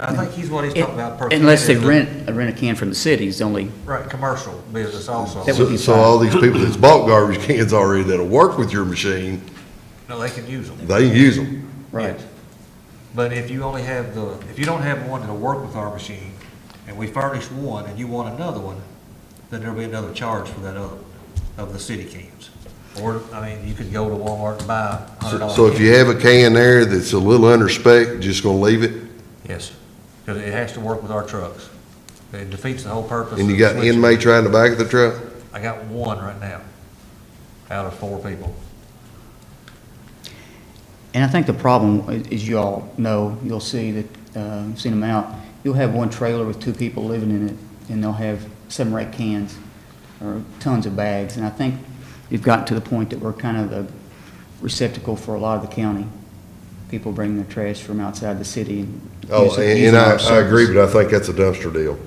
I think he's what he's talking about. per Unless they kid is the- rent, rent a can from the city is the only, Right, commercial business also. That would So be so fine. all these people that's bought garbage cans already that'll work with your machine, No, they can use them. they can use them. right. But if you only have the, if you don't have one that'll work with our machine, and we furnish one, and you want another one, then there'll be another charge for that other, one of the city cans. Or, I mean, you could go to Walmart and buy a hundred So- dollars. So if you have a can there that's a little under spec, just gonna leave it? Yes, because it has to work with our trucks. It defeats the whole purpose. And you of got switching. inmate trying to back of the truck? I got one right now, out of four people. And I think the problem, a- as you all know, you'll see that, uh, I've seen them out, you'll have one trailer with two people living in it, and they'll have seven or eight cans, or tons of bags, and I think we've gotten to the point that we're kind of a receptacle for a lot of the county. People bring their trash from outside the city and. Oh, using- and using and I, our I agree, service. but I think that's a dumpster deal.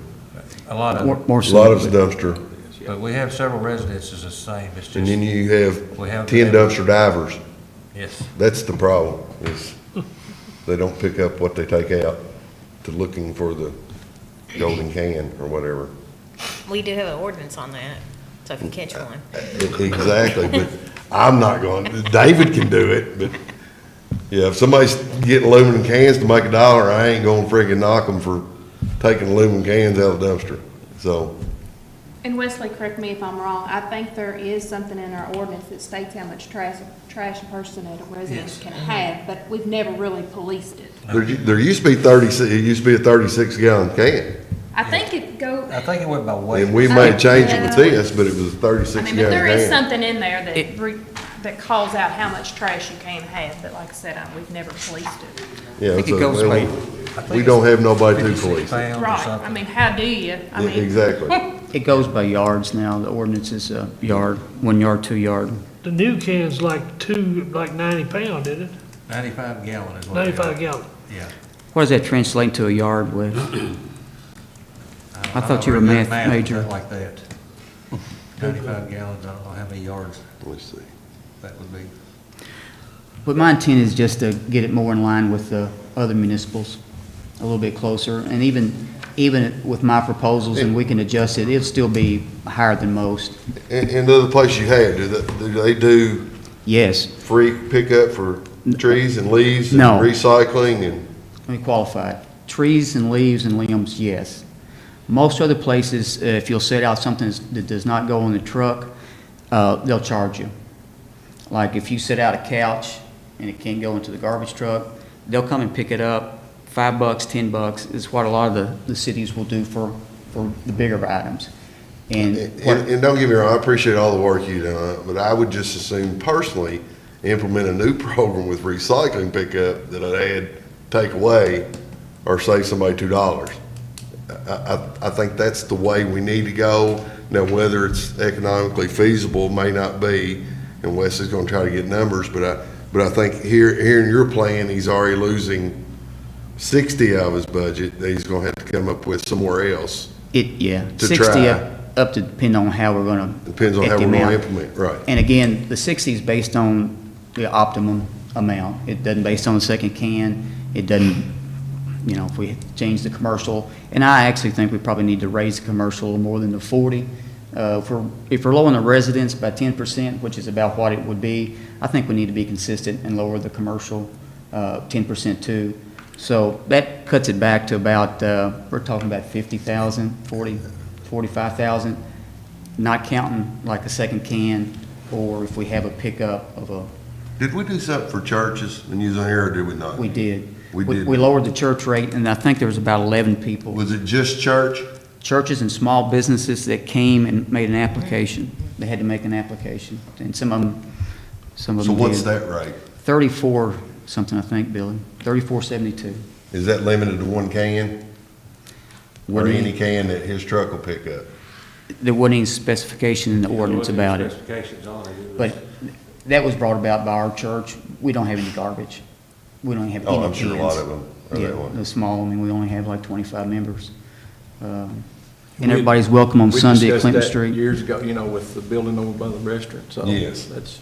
A lot of, More, them. more A so. lot of it's but- dumpster, but we have several residences the same, it's and then just, you We have have- ten dumpster divers. yes. That's the problem, is they don't pick up what they take out to looking for the golden can or whatever. We do have an ordinance on that, so if you catch one. Exactly, but I'm not going, David can do it, but, yeah, if somebody's getting aluminum cans to make a dollar, I ain't gonna friggin' knock them for taking aluminum cans out of the dumpster. So, And Wesley, correct me if I'm wrong, I think there is something in our ordinance that states how much trash, trash a person at a residence can have, but we've never really policed it. there, there used to be thirty-six, it used to be a thirty-six gallon can. I think it go, I think it went by weight. And we may change it with this, but it was a thirty-six gallon I can. mean, but there is something in there that, re- that calls out how much trash you can have, but like I said, I- we've never policed it. Yeah, I think it so, goes well, by- We don't have nobody to 56 police. it. pounds or Right, I something. mean, how do you, I Yeah, mean. exactly. It goes by yards now, the ordinance is a yard, one yard, two yard. The new can's like two, like ninety pound, isn't it? Ninety-five gallon is what. they are. Ninety-five gallon. Yeah. What does that translate to a yard with? I don't thought you were know, math but major. Like that. Ninety-five gallons, I don't know how many yards Let's see. that would be. But my intent is just to get it more in line with the other municipals, a little bit closer. And even, even with my proposals, and we can adjust it, it'll still be higher than most. And, and the other place you had, do they, do they do Yes, free pickup for trees and leaves and No. recycling and, let me qualify it. Trees and leaves and limbs, yes. Most other places, uh, if you'll set out something that's- that does not go on the truck, uh, they'll charge you. Like if you set out a couch and it can't go into the garbage truck, they'll come and pick it up. Five bucks, ten bucks is what a lot of the, the cities will do for, for the bigger items. And and, what- and don't get me wrong, I appreciate all the work you done, but I would just as soon personally implement a new program with recycling pickup that I'd add, take away, or save somebody two dollars. I, I, I think that's the way we need to go. Now, whether it's economically feasible may not be, and Wes is gonna try to get numbers, but I, but I think here, here in your plan, he's already losing sixty of his budget that he's gonna have to come up with somewhere else. it, yeah, To sixty try. up, up to depend on how we're gonna. Depends on get how the we're gonna amount. implement, right. And again, the 60 is based on the optimum amount. It doesn't based on the second can. It doesn't, you know, if we change the commercial. And I actually think we probably need to raise the commercial more than the 40. Uh, If we're, if we're lowering the residents by 10%, which is about what it would be, I think we need to be consistent and lower the commercial uh, 10% too. So that cuts it back to about, uh, we're talking about 50,000, 40, 45,000 not counting like a second can, or if we have a pickup of a, Did we do something for churches and use on air, or did we not? we did. We did. We lowered the church rate, and I think there was about 11 people. Was it just church? Churches and small businesses that came and made an application. They had to make an application, and some of them, some of So them what's did. that rate? 34 something, I think, Billy, 3472. Is that limited to one can? Or Wouldn't- any can that his truck will pick up? There wasn't any specification in the ordinance about it. Specifications on it. it. But was- that was brought about by our church. We don't have any garbage. We don't have any Oh, cans. I'm sure a lot of them are that Yeah, way. the small, I mean, we only have like twenty-five members. Um, We- And everybody's welcome on We Sunday at discussed Clinton that Street. Years ago, you know, with the building over by the restaurant, so. Yes. That's,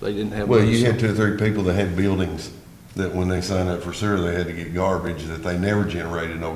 they didn't have. Well, one, you so- had two or three people that had buildings that when they signed up for sewer, they had to get garbage that they never generated no